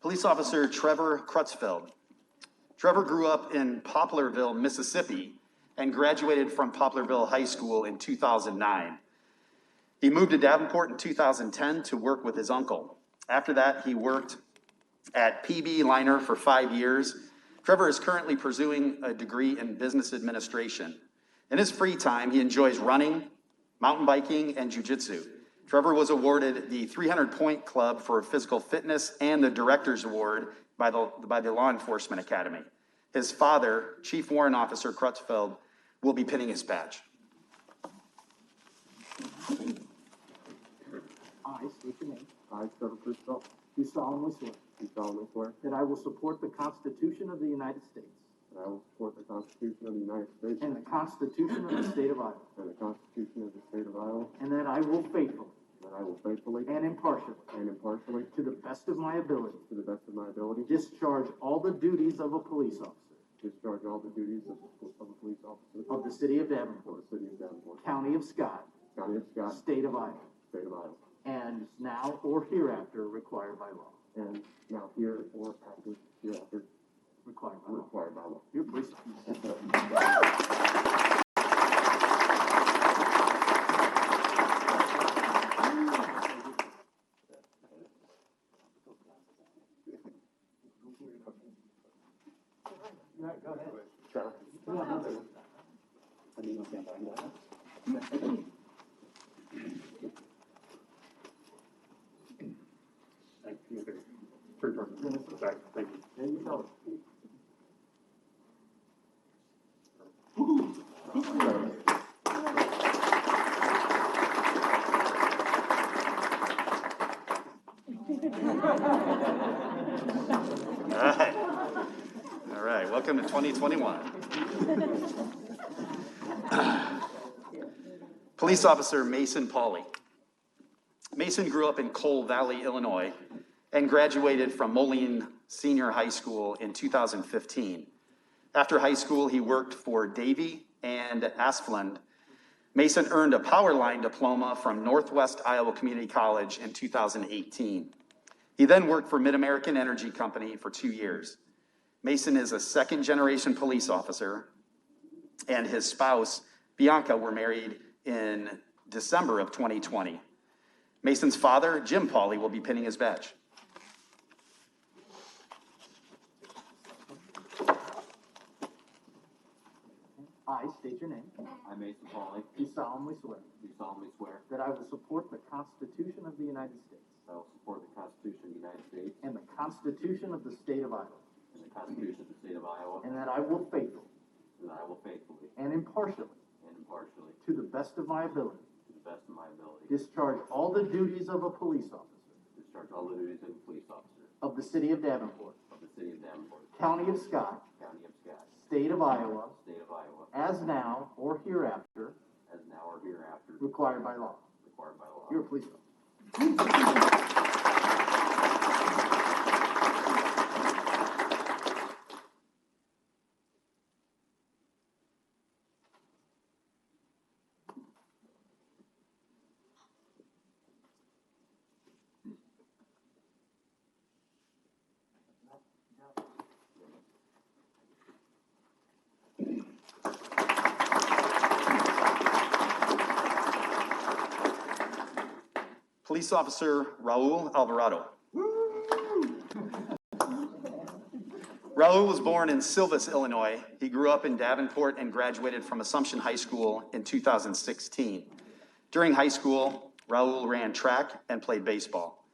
Police Officer Trevor Crutzfeld. Trevor grew up in Poplarville, Mississippi, and graduated from Poplarville High School in 2009. He moved to Davenport in 2010 to work with his uncle. After that, he worked at PB Liner for five years. Trevor is currently pursuing a degree in business administration. In his free time, he enjoys running, mountain biking, and jujitsu. Trevor was awarded the 300 Point Club for physical fitness and the Director's Award by the, by the Law Enforcement Academy. His father, Chief Warrant Officer Crutchfield, will be pinning his badge. I state your name, I, Trevor Cristal, do solemnly swear do solemnly swear that I will support the Constitution of the United States that I will support the Constitution of the United States and the Constitution of the State of Iowa, and the Constitution of the State of Iowa, and that I will faithfully that I will faithfully and impartially, and impartially, to the best of my ability, to the best of my ability, discharge all the duties of a police officer discharge all the duties of of a police officer of the City of for Davenport, the City of Davenport, County of Scott, County of Scott, State of Iowa, State of Iowa, and now or hereafter required by law. and now here or after, hereafter Required by law. required by law. You're a police officer. Thank you. Turn, turn. Back, thank you. There you go. All right. All right, welcome to 2021. Police Officer Mason Pauley. Mason grew up in Coal Valley, Illinois, and graduated from Moline Senior High School in 2015. After high school, he worked for Davie and Asplund. Mason earned a power line diploma from Northwest Iowa Community College in 2018. He then worked for Mid American Energy Company for two years. Mason is a second generation police officer, and his spouse, Bianca, were married in December of 2020. Mason's father, Jim Pauley, will be pinning his badge. I state your name, I, Mason Pauley, do solemnly swear do solemnly swear that I will support the Constitution of the United States that I will support the Constitution of the United States And the Constitution of the State of Iowa. and the Constitution of the State of Iowa, and And that I will faithfully that I will faithfully and impartially, and impartially, to the best of my ability, to the best of my ability, discharge all the duties of a police officer discharge all the duties of a police officer of the City of Davenport, of the City of Davenport, County of Scott, County of Scott, State of Iowa, State of Iowa, as now or hereafter as now or hereafter required by law. required by law. You're a police officer. Police Officer Raul Alvarado. Raul was born in Silvis, Illinois. He grew up in Davenport and graduated from Assumption High School in 2016. During high school, Raul ran track and played baseball.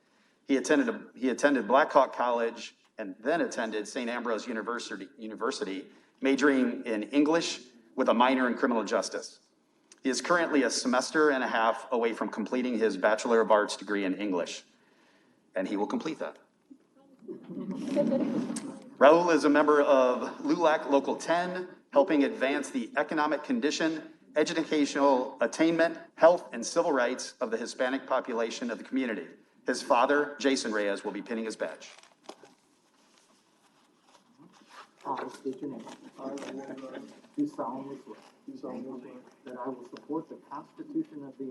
He attended, he attended Blackhawk College and then attended St. Ambrose University, University, majoring in English with a minor in criminal justice. He is currently a semester and a half away from completing his Bachelor of Arts degree in English, and he will complete that. Raul is a member of LULAC Local 10, helping advance the economic condition, educational attainment, health, and civil rights of the Hispanic population of the community. His father, Jason Reyes, will be pinning his badge. I state your name. Do solemnly swear Do solemnly swear that I will support the Constitution of the